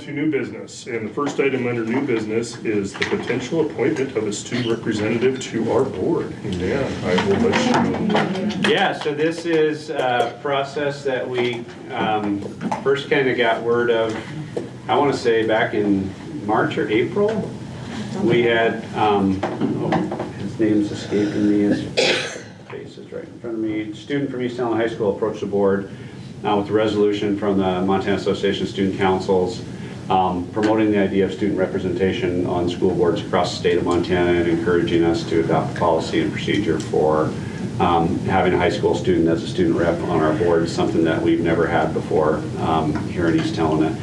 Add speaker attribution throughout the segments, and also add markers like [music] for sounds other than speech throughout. Speaker 1: To new business, and the first item under new business is the potential appointment of a student representative to our board. And Dan, I will let you.
Speaker 2: Yeah, so this is a process that we um, first kind of got word of, I want to say back in March or April. We had, um, oh, his name's escaping me, his face is right in front of me. Student from East Allen High School approached the board uh, with a resolution from the Montana Association of Student Councils um, promoting the idea of student representation on school boards across the state of Montana and encouraging us to adopt policy and procedure for um, having a high school student as a student rep on our board, something that we've never had before um, here in East Helena.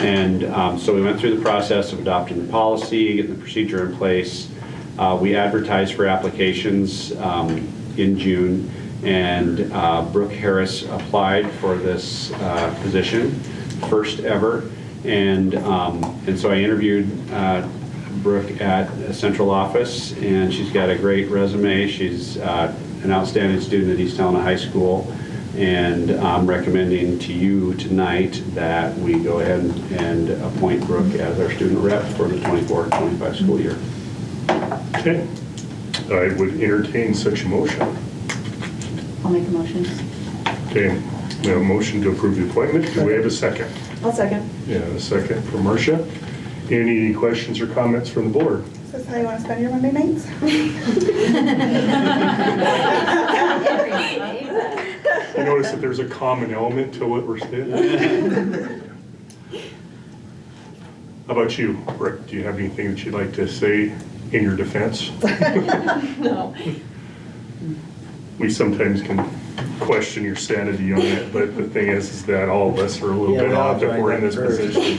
Speaker 2: And um, so we went through the process of adopting the policy, getting the procedure in place. Uh, We advertised for applications um, in June, and uh, Brooke Harris applied for this uh, position, first ever. And, um, and so I interviewed uh, Brooke at a central office, and she's got a great resume. She's uh, an outstanding student at East Helena High School, and I'm recommending to you tonight that we go ahead and appoint Brooke as our student rep for the 24-25 school year.
Speaker 1: Okay. I would entertain such a motion.
Speaker 3: I'll make a motion.
Speaker 1: Okay, we have a motion to approve the appointment. Do we have a second?
Speaker 3: I'll second.
Speaker 1: Yeah, a second for Marcia. Any questions or comments from the board?
Speaker 4: Is this how you want to spend your Monday
Speaker 5: [laughs]
Speaker 4: nights?
Speaker 1: You notice that there's a common element to what we're saying? How about you, Rick? Do you have anything that you'd like to say in your defense?
Speaker 6: No.
Speaker 1: We sometimes can question your sanity on it, but the thing is, is that all of us are a little
Speaker 7: Yeah,
Speaker 1: bit
Speaker 7: we all
Speaker 1: off if
Speaker 7: joined
Speaker 1: we're in
Speaker 7: that
Speaker 1: this
Speaker 7: first.
Speaker 1: position,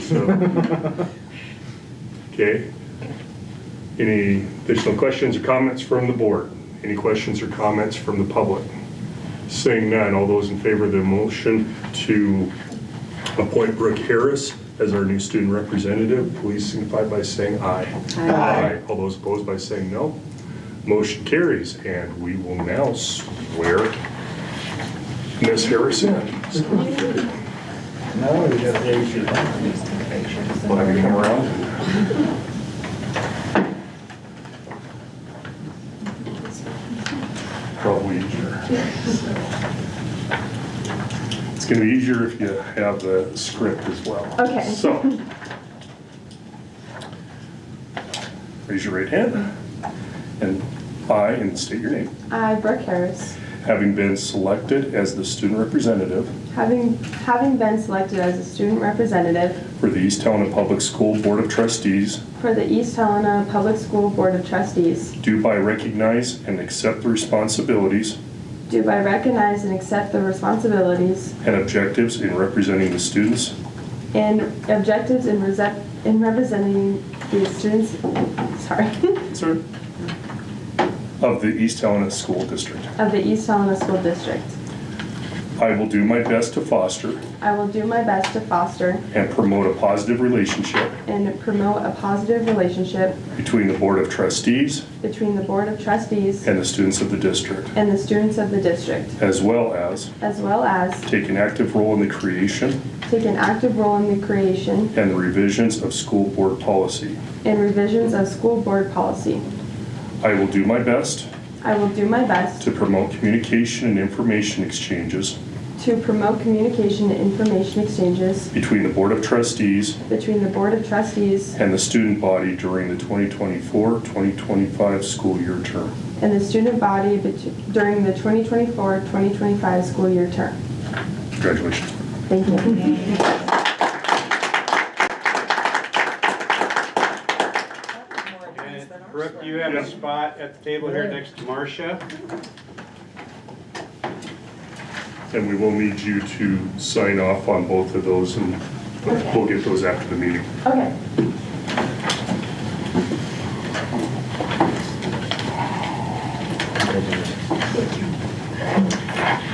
Speaker 1: so.
Speaker 7: [laughs]
Speaker 1: Okay. Any additional questions or comments from the board? Any questions or comments from the public? Seeing none, all those in favor of the motion to appoint Brooke Harris as our new student representative, please signify by saying aye.
Speaker 3: Aye.
Speaker 1: All those opposed by saying no. Motion carries, and we will now swear Ms. Harris in.
Speaker 7: No, you gotta raise your hand.
Speaker 1: Will have you come around? Probably easier. It's gonna be easier if you have the script as well.
Speaker 6: Okay.
Speaker 1: So. Raise your right hand, and I, and state your name.
Speaker 6: I, Brooke Harris,
Speaker 1: Having been selected as the student representative
Speaker 6: having, having been selected as a student representative
Speaker 1: for the East Helena Public School Board of Trustees,
Speaker 6: for the East Helena Public School Board of Trustees,
Speaker 1: do by recognize and accept the responsibilities
Speaker 6: do by recognize and accept the responsibilities
Speaker 1: and objectives in representing the students
Speaker 6: and objectives in resent, in representing the students, sorry, [laughs]
Speaker 1: of the East Helena School District.
Speaker 6: of the East Helena School District.
Speaker 1: I will do my best to foster
Speaker 6: I will do my best to foster
Speaker 1: and promote a positive relationship
Speaker 6: and promote a positive relationship
Speaker 1: between the Board of Trustees
Speaker 6: between the Board of Trustees
Speaker 1: and the students of the district,
Speaker 6: and the students of the district,
Speaker 1: as well as
Speaker 6: as well as
Speaker 1: take an active role in the creation
Speaker 6: take an active role in the creation
Speaker 1: and the revisions of school board policy.
Speaker 6: and revisions of school board policy.
Speaker 1: I will do my best
Speaker 6: I will do my best
Speaker 1: to promote communication and information exchanges
Speaker 6: to promote communication and information exchanges
Speaker 1: between the Board of Trustees
Speaker 6: between the Board of Trustees
Speaker 1: and the student body during the 2024-2025 school year term.
Speaker 6: and the student body bet- during the 2024-2025 school year term.
Speaker 1: Congratulations.
Speaker 6: Thank you.
Speaker 2: Brooke, you have a spot at the table here next to Marcia.
Speaker 1: And we will need you to sign off on both of those, and we'll get those after the meeting.
Speaker 6: Okay.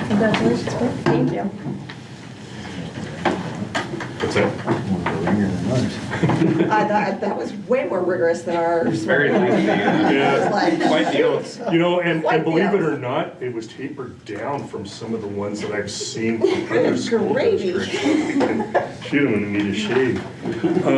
Speaker 3: Congratulations, Brooke.
Speaker 6: Thank you.
Speaker 1: That's it.
Speaker 7: More of a ringer than others.
Speaker 5: I thought, that was way more rigorous than ours.
Speaker 2: Very lengthy. [laughs]
Speaker 5: I was like,
Speaker 2: Quite the oath.
Speaker 1: You know, and,
Speaker 5: Quite
Speaker 1: and
Speaker 5: the
Speaker 1: believe it
Speaker 5: opposite.
Speaker 1: or not, it was tapered down from some of the ones that I've seen from other school
Speaker 5: gravy.
Speaker 1: districts. She didn't even need a shave.